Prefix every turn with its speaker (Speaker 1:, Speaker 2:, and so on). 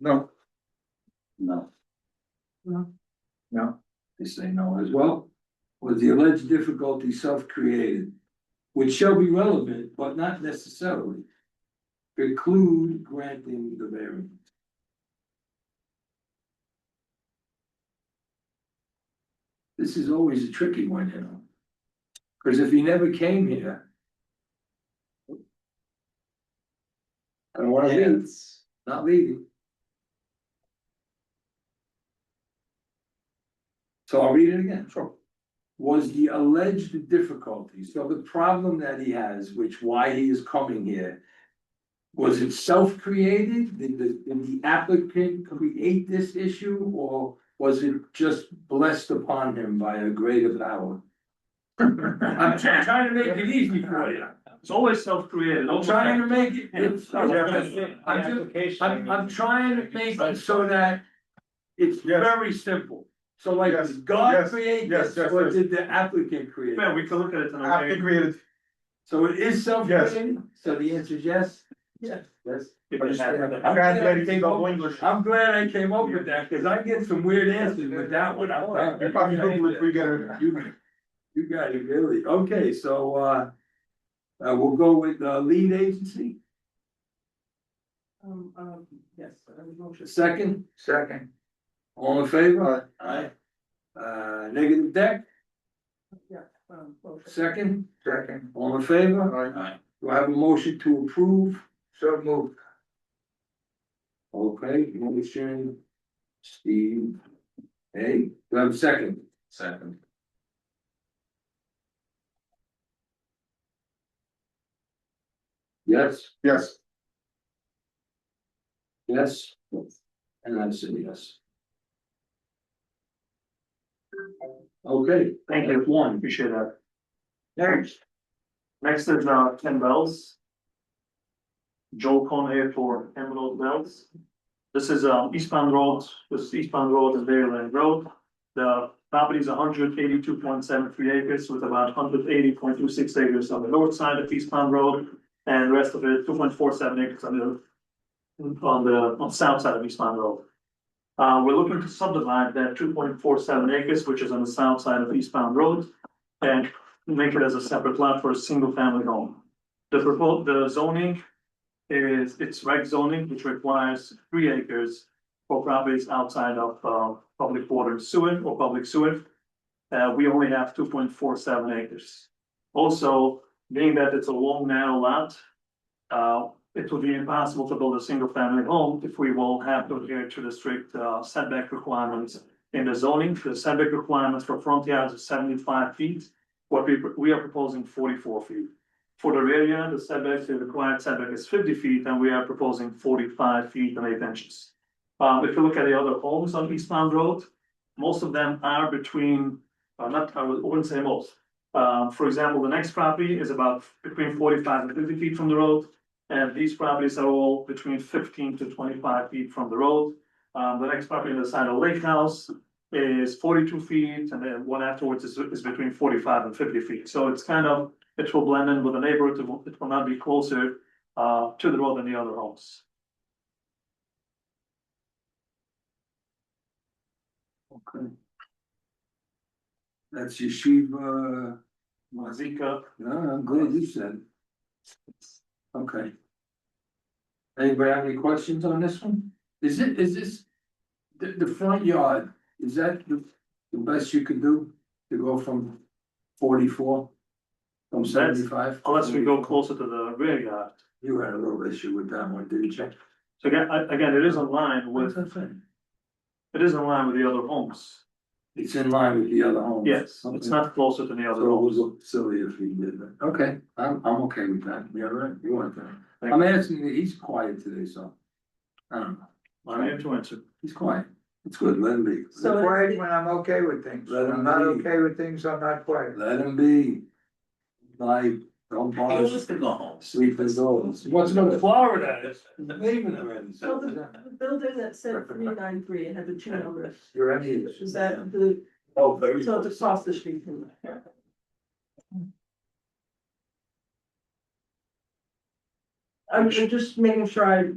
Speaker 1: No.
Speaker 2: No.
Speaker 3: No.
Speaker 2: No, they say no as well. Was the alleged difficulty self-created, which shall be relevant, but not necessarily preclude granting the variance. This is always a tricky one, you know? Cause if he never came here. I don't wanna leave, not leaving. So I'll read it again. Sure. Was the alleged difficulty, so the problem that he has, which why he is coming here. Was it self-created? Did the, did the applicant create this issue or was it just blessed upon him by a greater power? I'm try- trying to make it easy for you.
Speaker 1: It's always self-created.
Speaker 2: I'm trying to make it. it's- I'm just- I'm, I'm trying to make it so that it's
Speaker 1: Yes.
Speaker 2: very simple. So like,
Speaker 1: Yes,
Speaker 2: did God
Speaker 1: yes,
Speaker 2: create
Speaker 1: yes,
Speaker 2: this,
Speaker 1: yes,
Speaker 2: or
Speaker 1: yes.
Speaker 2: did the applicant create? it?
Speaker 1: Yeah, we can look at it
Speaker 4: After
Speaker 1: and
Speaker 4: created,
Speaker 2: So it is self-created, so the answer is yes?
Speaker 3: Yes.
Speaker 2: Yes.
Speaker 4: I'm glad that came up with English.
Speaker 2: I'm glad I came up with that, cause I get some weird answers with that one. I'm like,
Speaker 4: You probably Google if we get a.
Speaker 2: You, you got it, really, okay, so, uh. Uh, we'll go with, uh, lead agency,
Speaker 3: Um, um, yes, I would motion.
Speaker 2: second,
Speaker 4: Second.
Speaker 2: all in favor? Aye. Uh, negative deck,
Speaker 3: Yeah, um, motion.
Speaker 2: second?
Speaker 4: Second.
Speaker 2: All in favor?
Speaker 4: Alright,
Speaker 2: Do I have a motion to approve?
Speaker 4: so move.
Speaker 2: Okay, motion, Steve. Hey, do I have a second?
Speaker 1: Second.
Speaker 2: Yes,
Speaker 4: Yes.
Speaker 2: yes. And I say yes. Okay.
Speaker 1: Thank you.
Speaker 2: that's One.
Speaker 1: Appreciate that. Next. Next is uh Ken Bells. Joel Cohn here for Emerald Bells. This is um eastbound road, this is eastbound road is Maryland Road. The property is hundred eighty-two point seven three acres with about hundred eighty point two six acres on the north side of eastbound road. And rest of it, two point four seven acres on the, on the, on south side of eastbound road. Uh, we're looking to subdivide that two point four seven acres, which is on the south side of eastbound road and make it as a separate lot for a single family home. The proposed, the zoning is, it's reg zoning, which requires three acres for properties outside of, uh, public water and sewer or public sewer. Uh, we only have two point four seven acres. Also, being that it's a long narrow lot, uh, it would be impossible to build a single family home if we will have to adhere to the strict uh, setback requirements in the zoning, the setback requirements for front yards is seventy-five feet. What we, we are proposing forty-four feet. For the rear yard, the setback, the required setback is fifty feet, and we are proposing forty-five feet and eight inches. Um, if you look at the other homes on Eastbound Road, most of them are between, uh, not, I wouldn't say most. Um, for example, the next property is about between forty-five and fifty feet from the road. And these properties are all between fifteen to twenty-five feet from the road. Um, the next property on the side of Lake House is forty-two feet, and then one afterwards is, is between forty-five and fifty feet. So it's kind of, it will blend in with the neighborhood, it will, it will not be closer, uh, to the road than the other homes.
Speaker 2: Okay. That's Yeshiva,
Speaker 1: Mazika,
Speaker 2: no, I'm glad you said. it. Okay. Anybody have any questions on this one? Is it, is this, the, the front yard, is that the, the best you can do to go from forty-four? From
Speaker 1: That's-
Speaker 2: seventy-five?
Speaker 1: unless we go closer to the rear yard.
Speaker 2: You had a little issue with that one, didn't you?
Speaker 1: So again, I- again, it is in line with,
Speaker 2: that thing?
Speaker 1: it is in line with the other homes.
Speaker 2: It's in line with the other homes.
Speaker 1: Yes, it's
Speaker 2: Okay.
Speaker 1: not closer to the
Speaker 2: So
Speaker 1: other
Speaker 2: it was
Speaker 1: homes.
Speaker 2: a silly if he did that. Okay, I'm, I'm okay with that. You all right? You want that?
Speaker 1: Thank
Speaker 2: I'm asking, he's quiet today, so. I don't know.
Speaker 1: I have to answer.
Speaker 2: He's quiet. It's good, let him be.
Speaker 3: So it's-
Speaker 4: Quiet when I'm okay with things.
Speaker 2: Let
Speaker 4: When
Speaker 2: him
Speaker 4: I'm not
Speaker 2: be.
Speaker 4: okay with things, I'm not quiet.
Speaker 2: Let him be. Like, don't bother
Speaker 1: to go home.
Speaker 2: sleeping dogs. What's going to Florida? It's leaving already.
Speaker 3: So the the building that said three nine three, it had the two numbers,
Speaker 2: You're empty.
Speaker 3: is that the,
Speaker 2: Oh, very.
Speaker 3: so it's across the street from that. I'm I'm just making sure I